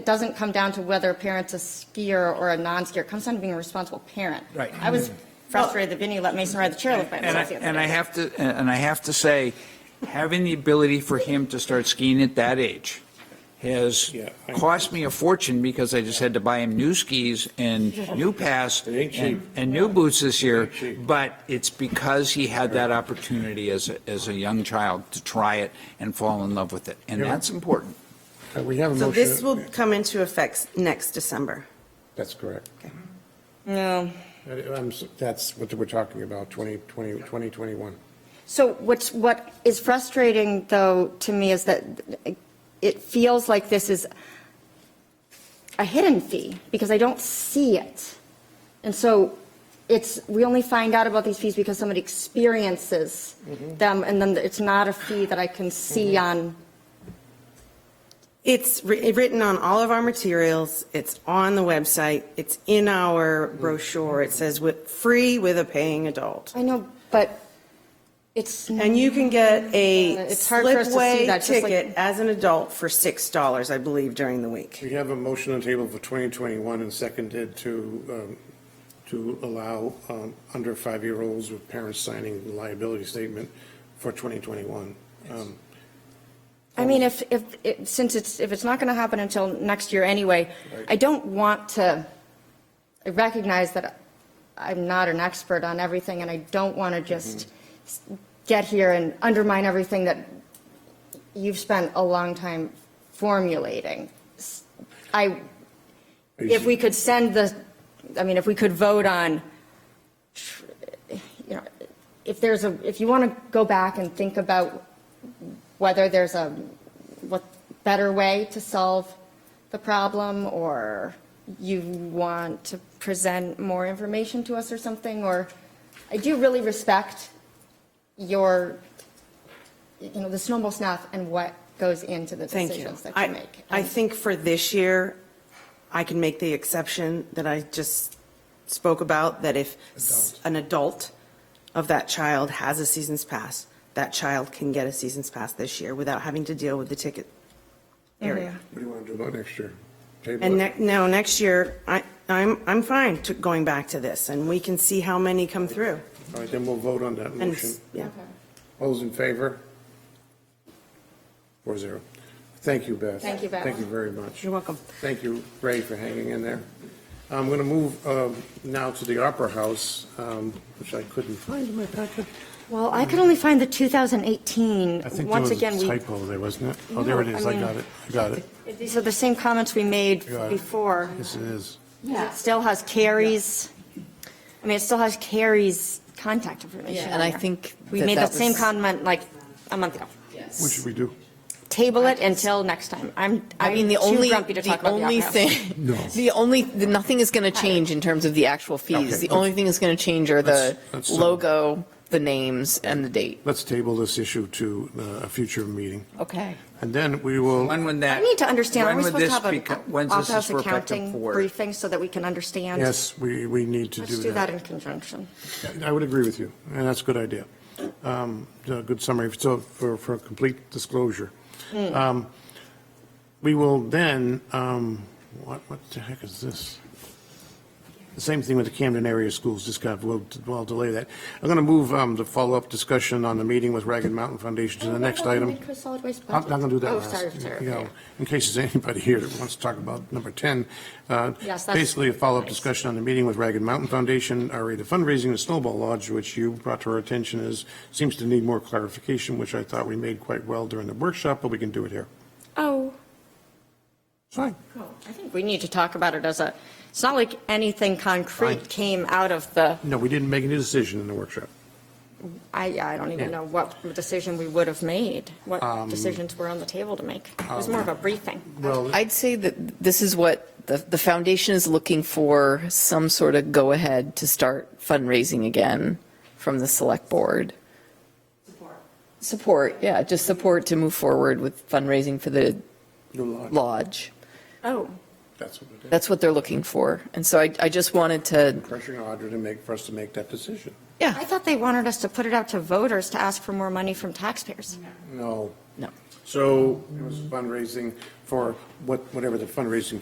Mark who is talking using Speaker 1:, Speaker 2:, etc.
Speaker 1: It doesn't come down to whether a parent's a skier or a non-skier. It comes down to being a responsible parent.
Speaker 2: Right.
Speaker 1: I was frustrated that Vinny let Mason ride the chairlift by
Speaker 2: And I,
Speaker 1: himself the other
Speaker 2: and I
Speaker 1: day.
Speaker 2: have to, and I have to say, having the ability for him to start skiing at that age has
Speaker 3: Yeah, I-
Speaker 2: cost me a fortune because I just had to buy him new skis and new pass
Speaker 3: It ain't
Speaker 2: and,
Speaker 3: cheap.
Speaker 2: and new boots this year.
Speaker 3: ain't cheap.
Speaker 2: But it's because he had that opportunity as, a- as a young child to try it and fall in love with it. And
Speaker 3: Yeah.
Speaker 2: that's important.
Speaker 3: Uh, We have a
Speaker 4: So this will
Speaker 3: motion.
Speaker 4: come into effect next December.
Speaker 3: That's correct.
Speaker 1: No.
Speaker 3: Uh, I'm s- That's what we're talking about, 2020, 2021.
Speaker 1: So what's, what is frustrating, though, to me is that it feels like this is a hidden fee, because I don't see it. And so it's, we only find out about these fees because somebody experiences
Speaker 2: Mm-hmm.
Speaker 1: them, and then it's not a fee that I can see on,
Speaker 4: It's wri- written on all of our materials, it's on the website, it's in our brochure, it says with, free with a paying adult.
Speaker 1: I know, but it's. Uh,
Speaker 4: And you can get a
Speaker 1: It's hard for us to see
Speaker 4: slipway
Speaker 1: that, just like-
Speaker 4: ticket as an adult for $6, I believe, during the week.
Speaker 3: We have a motion on the table for 2021 and seconded to, um, to allow um, under five-year-olds with parents signing the liability statement for 2021. Um,
Speaker 1: I mean, if, if, it- since it's, if it's not going to happen until next year anyway, I don't want to I recognize that I'm not an expert on everything, and I don't want to just s- get here and undermine everything that you've spent a long time formulating. S- I,
Speaker 3: are you-
Speaker 1: if we could send the, I mean, if we could vote on, you know, if there's a, if you want to go back and think about whether there's a, what, better way to solve the problem, or you want to present more information to us or something, or, I do really respect your, you know, the snowball snuff and what goes into the
Speaker 4: Thank you.
Speaker 1: decisions that you
Speaker 4: I,
Speaker 1: make.
Speaker 4: I
Speaker 1: And-
Speaker 4: think for this year, I can make the exception that I just spoke about, that if s- an adult of that child has a season's pass, that child can get a season's pass this year without having to deal with the ticket area.
Speaker 3: What do you want to do about next year? Table
Speaker 4: And
Speaker 3: it?
Speaker 4: ne- no, next year, I, I'm, I'm fine to going back to this, and we can see how many come through.
Speaker 3: All right, then we'll vote on that
Speaker 4: And,
Speaker 3: motion.
Speaker 4: s- yeah.
Speaker 3: All those in favor? Four zero. Thank you, Beth.
Speaker 1: Thank you, Beth.
Speaker 3: Thank you very much.
Speaker 4: You're welcome.
Speaker 3: Thank you, Ray, for hanging in there. I'm going to move um, now to the Opera House, um, which I couldn't find in my packet.
Speaker 1: Well, I could only find the 2018.
Speaker 3: I think there
Speaker 1: Once
Speaker 3: was
Speaker 1: again,
Speaker 3: a
Speaker 1: we,
Speaker 3: typo there, wasn't it? Oh, there it
Speaker 1: No,
Speaker 3: is.
Speaker 1: I
Speaker 3: I
Speaker 1: mean-
Speaker 3: got it. I got it.
Speaker 1: these are the same comments we made
Speaker 3: Got it.
Speaker 1: before.
Speaker 3: Yes, it is.
Speaker 1: It still has Carrie's, I mean, it still has Carrie's contact information.
Speaker 5: And I
Speaker 1: on there.
Speaker 5: think.
Speaker 1: We
Speaker 5: that
Speaker 1: made
Speaker 5: that
Speaker 1: that same
Speaker 5: was-
Speaker 1: comment like a month ago.
Speaker 3: What should we do?
Speaker 1: Table it until next time. I'm,
Speaker 5: I
Speaker 1: I'm
Speaker 5: mean,
Speaker 1: too
Speaker 5: the only,
Speaker 1: grumpy to
Speaker 5: the
Speaker 1: talk about the
Speaker 5: only
Speaker 1: Opera House.
Speaker 5: thing,
Speaker 3: No.
Speaker 5: the only, the- nothing is going to change in terms of the actual
Speaker 3: Okay,
Speaker 5: fees. The
Speaker 3: let's-
Speaker 5: only thing that's going to change are
Speaker 3: let's-
Speaker 5: the
Speaker 3: let's, uh,
Speaker 5: logo, the names, and the date.
Speaker 3: Let's table this issue to uh, a future meeting.
Speaker 5: Okay.
Speaker 3: And then we will.
Speaker 2: When would that?
Speaker 1: I need to understand, are
Speaker 2: when
Speaker 1: we
Speaker 2: would
Speaker 1: supposed to
Speaker 2: this
Speaker 1: have an
Speaker 2: beco- when's
Speaker 1: Opera
Speaker 2: this
Speaker 1: House
Speaker 2: is for effective
Speaker 1: accounting
Speaker 2: for?
Speaker 1: briefing so that we can understand?
Speaker 3: Yes, we, we need to do that.
Speaker 1: Let's do that in conjunction.
Speaker 3: I would agree with you, and that's a good idea. Um, a Good summary, so for, for complete disclosure. Um, We will then, um, what, what the heck is this? The same thing with the Camden area schools, just kind of, we'll, we'll delay that. I'm going to move um, the follow-up discussion on the meeting with Ragged Mountain Foundation to the next item. I'm not going to do that
Speaker 1: Oh,
Speaker 3: last.
Speaker 1: sorry, sorry.
Speaker 3: You know, In case there's anybody here that wants to talk about number 10. uh,
Speaker 1: Yes, that's-
Speaker 3: Basically, a follow-up
Speaker 1: nice.
Speaker 3: discussion on the meeting with Ragged Mountain Foundation, RE, the fundraising of Snowball Lodge, which you brought to our attention is, seems to need more clarification, which I thought we made quite well during the workshop, but we can do it here.
Speaker 1: Oh.
Speaker 3: It's Fine.
Speaker 1: I think we need to talk about it as a, it's not like anything
Speaker 3: Fine.
Speaker 1: concrete came out of the,
Speaker 3: No, we didn't make any decision in the workshop.
Speaker 1: I, I don't even know what decision we would have made, what decisions were on the table to make. It was more of a briefing.
Speaker 3: Well,
Speaker 5: I'd say that this is what the, the foundation is looking for, some sort of go-ahead to start fundraising again from the select board. Support, yeah, just support to move forward with fundraising for the lodge.
Speaker 1: Oh,
Speaker 3: that's what it is.
Speaker 5: That's what they're looking for. And so I, I just wanted to,
Speaker 3: Pressuring Audra to make, for us to make that decision.
Speaker 5: yeah.
Speaker 1: I thought they wanted us to put it out to voters to ask for more money from taxpayers.
Speaker 3: No,
Speaker 5: No.
Speaker 3: So it was fundraising for what, whatever the fundraising